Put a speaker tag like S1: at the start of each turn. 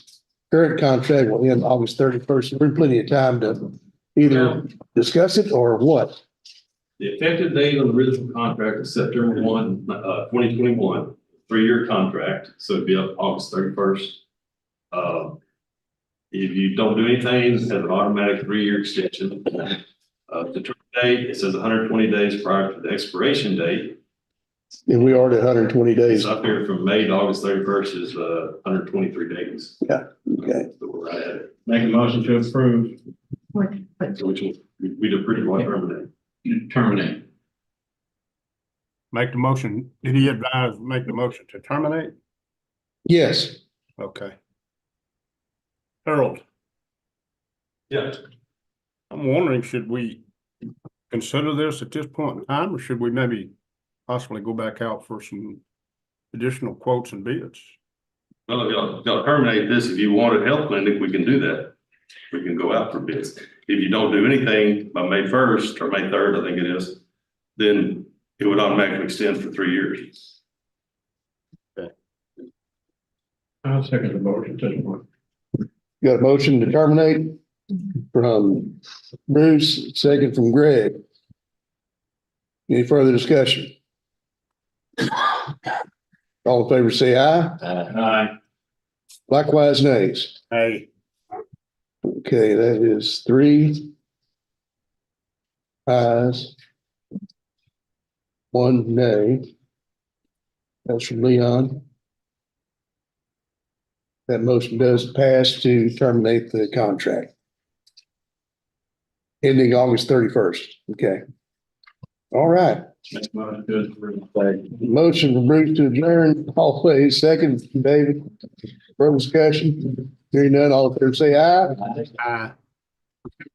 S1: current contract will end August thirty-first. We're in plenty of time to either discuss it or what.
S2: The effective date on the original contract is September one, uh, twenty twenty-one, three-year contract, so it'd be up August thirty-first. Uh, if you don't do anything, it has an automatic three-year extension. Uh, the term date, it says hundred and twenty days prior to the expiration date.
S1: And we are at hundred and twenty days.
S2: It's up here from May to August thirty-first is, uh, hundred and twenty-three days.
S1: Okay.
S2: So we're right at it.
S3: Make a motion to approve,
S2: So Which will- we, we did pretty well terminate.
S3: you terminate.
S4: Make the motion. Did he advise make the motion to terminate?
S1: Yes,
S4: Okay. Harold,
S2: Yeah.
S4: I'm wondering, should we consider this at this point in time, or should we maybe possibly go back out for some additional quotes and bids?
S2: Well, if y'all, if y'all terminate this, if you want a health clinic, we can do that. We can go out for bids. If you don't do anything by May first or May third, I think it is, then it would automatically extend for three years.
S3: I'll second the motion to approve.
S1: got a motion to terminate from Bruce, second from Greg. Any further discussion? All in favor, say aye.
S3: Aye.
S1: Likewise, nays.
S4: Hey.
S1: Okay, that is three. Ayes. One nay. That's from Leon. That motion does pass to terminate the contract. Ending August thirty-first, okay. All right,
S3: Make a motion to approve.
S1: motion from Bruce to adjourn, always second, from David. Further discussion, hearing none, all in favor, say aye.
S4: Aye.